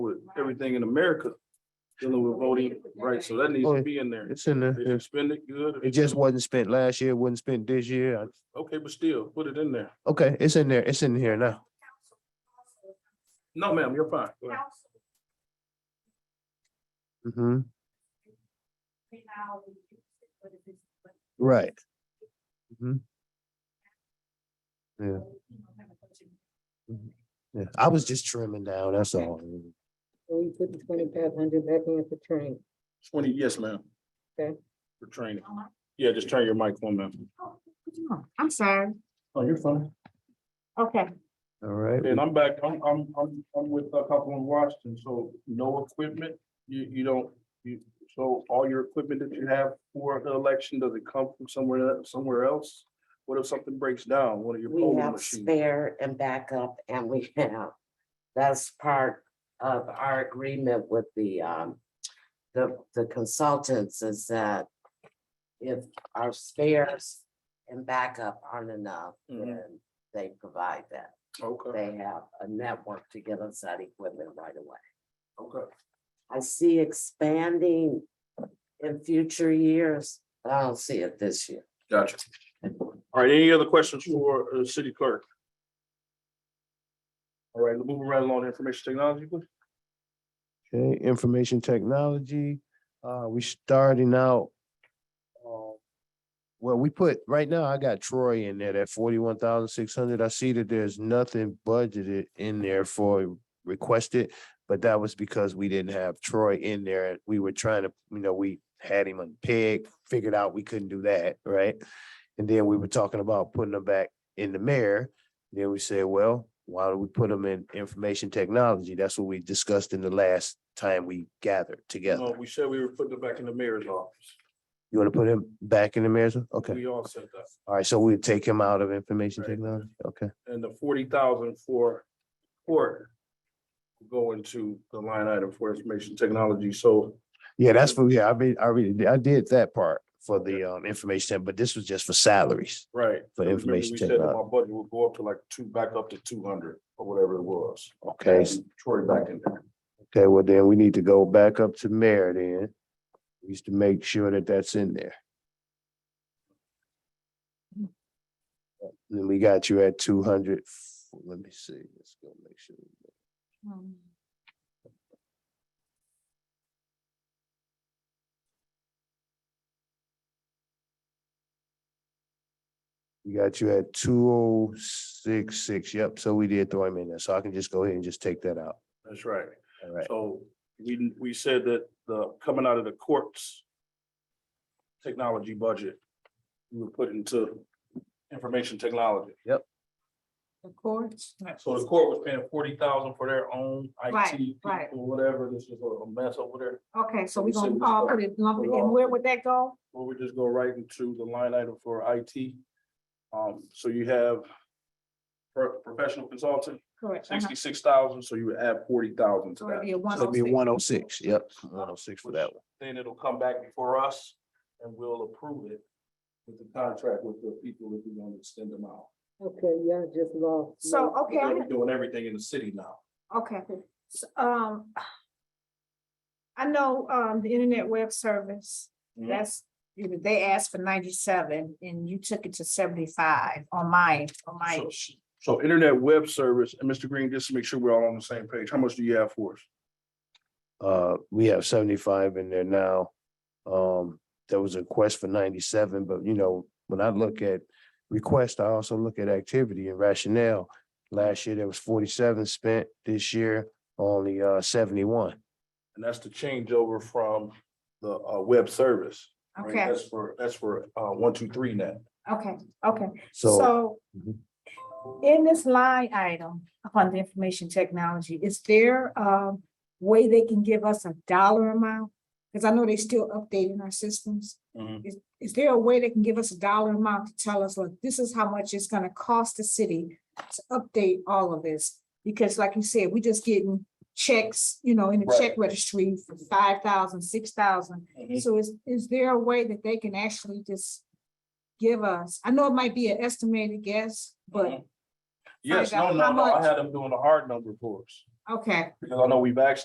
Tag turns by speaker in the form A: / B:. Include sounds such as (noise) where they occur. A: everything in America dealing with voting rights, so that needs to be in there.
B: It's in
A: If you
B: there.
A: spend it good. if
B: Oh, It
A: you
B: just
A: don't-
B: wasn't spent last year, wasn't spent this year. I-
A: Okay, but still, put it in there.
B: Okay, it's in there. It's in here now.
A: No, ma'am, you're fine. Go ahead.
B: hmm right. hmm Yeah. Mhm. Yeah, I was just trimming down, that's all.
C: We put the twenty-five hundred back in for training.
A: Twenty, yes, ma'am.
C: Okay.
A: For training. Yeah, just turn your mic on, ma'am.
C: I'm sorry,
A: Oh, you're fine.
C: okay.
B: All right.
A: And I'm back, I'm, I'm, I'm, I'm with a couple in Washington, so no equipment, you, you don't, you, so all your equipment that you have for the election, does it come from somewhere, else- somewhere else? What if something breaks down, one of your
D: We
A: polling
D: have
A: machines?
D: spare and backup and we (laughs) have, that's part of our agreement with the, um, the, the consultants is that if our spares and backup aren't enough,
A: Mhm.
D: then they provide that.
A: Okay,
D: They have a network to get us that equipment right away.
A: okay.
D: I see expanding in future years. but I don't see it this year.
A: Gotcha. All right, any other questions for uh city clerk? All right, moving right along to information technology, please.
B: Okay, information technology, uh, we starting out. uh, Well, we put, right now, I got Troy in there, that forty-one thousand six hundred, I see that there's nothing budgeted in there for requested. But that was because we didn't have Troy in there, we were trying to, you know, we had him on peg, figured out we couldn't do that, right? And then we were talking about putting him back in the mayor, then we said, well, why don't we put them in information technology? That's what we discussed in the last time we gathered
A: No,
B: together.
A: Uh, we said we were putting it back in the mayor's office.
B: You want to put him back in the mayor's? o- Okay,
A: We all said that.
B: all right, so we'll take him out of information
A: Right.
B: technology, okay.
A: And the forty thousand for court will go into the line item for information technology, so
B: Yeah, that's for, yeah, I mean, I already, did- I did that part for the um information, tech, but this was just for salaries.
A: Right.
B: For
A: Remember
B: information
A: we said that
B: technology.
A: My budget would go up to like two, back up to two hundred or whatever it was.
B: Okay, s-
A: And Troy back in there.
B: okay, well then we need to go back up to mayor then. We used to make sure that that's in there. Then we got you at two hundred. Let me see, let's go make sure. We got you at two oh six six, yep, so we did throw him in there, so I can just go ahead and just take that out,
A: That's right.
B: all right,
A: So we, we said that the, coming out of the courts technology budget, we would put into information technology.
C: The courts?
A: So the court was paying forty thousand for their own IT
C: Right,
A: people,
C: right.
A: whatever. This is a mess over there.
C: Okay, so
A: We
C: we're
A: said
C: gonna
A: we
C: all
A: start-
C: put it lumped,
A: we all-
C: and where would that go?
A: Well, we just go right into the line item for IT. Um, so you have pro- professional consultant,
C: Correct. uh-huh.
A: sixty-six thousand, so you would add forty thousand to
C: So it'd be
A: that.
C: a one
B: so
C: oh
B: it'd be
C: six.
B: one oh six, yep, one oh six for that one.
A: Then it'll come back before us and we'll approve it with the contract with the people if we want to extend them out.
C: Okay, yeah, just lost.
E: So, okay, I
A: They're doing everything in the city now.
E: Okay, so, um. I know, um, the internet web service,
A: Mhm.
E: that's, you know, they asked for ninety-seven and you took it to seventy-five on my, on my
A: So-
E: sheet.
A: So internet web service, and Mr. Green, just to make sure we're all on the same page, how much do you have for us?
B: Uh, we have seventy-five in there now. Um, there was a request for ninety-seven, but you know, when I look at request, I also look at activity and rationale. Last year, there was forty-seven spent, this year, only uh seventy-one.
A: And that's the changeover from the uh web service. right?
E: Okay,
A: That's for, that's for uh one, two, three net.
E: okay, okay.
B: So
E: So
B: Mhm.
E: in this line item upon the information technology, is there a way they can give us a dollar amount? Because I know they still updating our systems.
A: Mhm.
E: Is, is there a way they can give us a dollar amount to tell us, look, this is how much it's gonna cost the city to update all of this? Because like you said, we just getting checks, you know, in the check registry for five thousand, six thousand. So is, is there a way that they can actually just give us, I know it might be an estimated guess, but,
A: Yes, no,
E: Find out
A: no,
E: how
A: no, I
E: much-
A: had them doing the hard number for us,
E: okay.
A: because I know we've asked